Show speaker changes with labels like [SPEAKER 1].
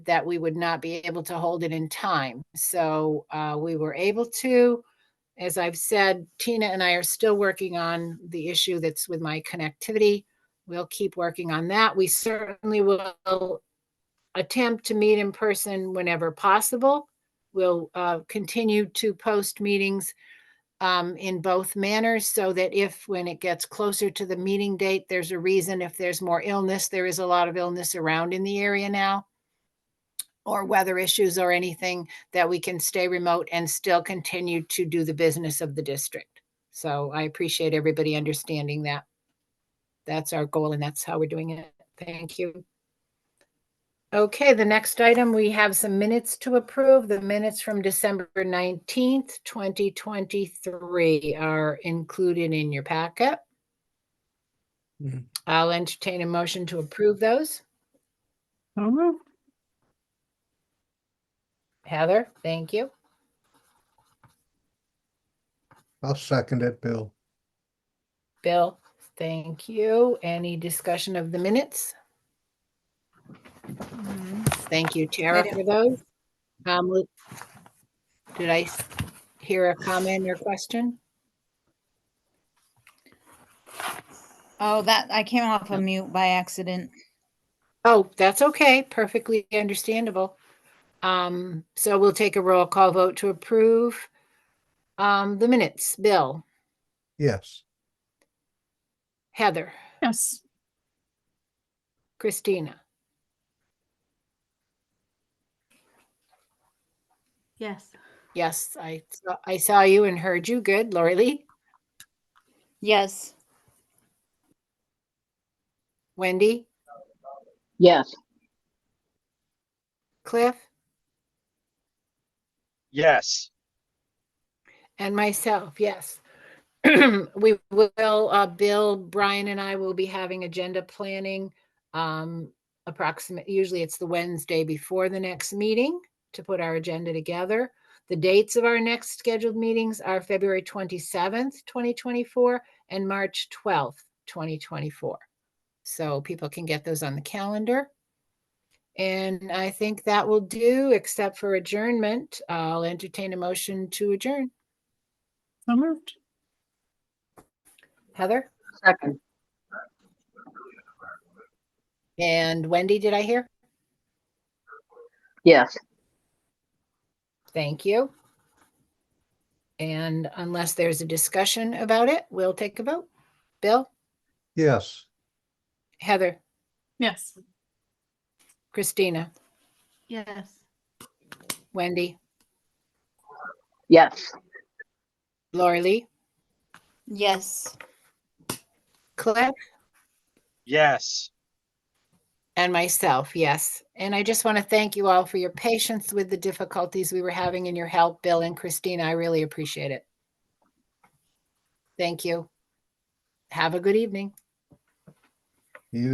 [SPEAKER 1] that we would not be able to hold it in time. So uh, we were able to. As I've said, Tina and I are still working on the issue that's with my connectivity. We'll keep working on that. We certainly will attempt to meet in person whenever possible. We'll uh, continue to post meetings um, in both manners so that if, when it gets closer to the meeting date, there's a reason, if there's more illness, there is a lot of illness around in the area now, or weather issues or anything, that we can stay remote and still continue to do the business of the district. So I appreciate everybody understanding that. That's our goal and that's how we're doing it. Thank you. Okay, the next item, we have some minutes to approve. The minutes from December 19th, 2023 are included in your packet.
[SPEAKER 2] Mhm.
[SPEAKER 1] I'll entertain a motion to approve those.
[SPEAKER 2] So moved.
[SPEAKER 1] Heather, thank you.
[SPEAKER 2] I'll second it, Bill.
[SPEAKER 1] Bill, thank you. Any discussion of the minutes? Thank you, Tara, for those. Um, Lu- Did I s- hear a comment or question?
[SPEAKER 3] Oh, that, I came off of mute by accident.
[SPEAKER 1] Oh, that's okay. Perfectly understandable. Um, so we'll take a roll call vote to approve. Um, the minutes, Bill,
[SPEAKER 2] Yes.
[SPEAKER 1] Heather,
[SPEAKER 4] Yes.
[SPEAKER 1] Christina,
[SPEAKER 4] Yes.
[SPEAKER 1] yes, I, saw- I saw you and heard you. Good. Lori Lee,
[SPEAKER 3] Yes,
[SPEAKER 1] Wendy,
[SPEAKER 5] Yes.
[SPEAKER 1] Cliff,
[SPEAKER 6] Yes,
[SPEAKER 1] and myself, yes. We will, uh, Bill, Brian and I will be having agenda planning. Um, approximate, usually it's the Wednesday before the next meeting to put our agenda together. The dates of our next scheduled meetings are February twenty-seventh, twenty twenty-four and March twelfth, twenty twenty-four. So people can get those on the calendar. And I think that will do, except for adjournment. I'll entertain a motion to adjourn.
[SPEAKER 4] So moved.
[SPEAKER 1] Heather?
[SPEAKER 5] Second.
[SPEAKER 1] And Wendy, did I hear?
[SPEAKER 5] Yes.
[SPEAKER 1] Thank you. And unless there's a discussion about it, we'll take a vote. Bill,
[SPEAKER 2] Yes.
[SPEAKER 1] Heather,
[SPEAKER 4] Yes.
[SPEAKER 1] Christina,
[SPEAKER 4] Yes.
[SPEAKER 1] Wendy,
[SPEAKER 5] Yes.
[SPEAKER 1] Lori Lee,
[SPEAKER 3] yes.
[SPEAKER 1] Cliff,
[SPEAKER 6] yes.
[SPEAKER 1] and myself, yes. And I just want to thank you all for your patience with the difficulties we were having and your help, Bill and Christina. I really appreciate it. Thank you. Have a good evening.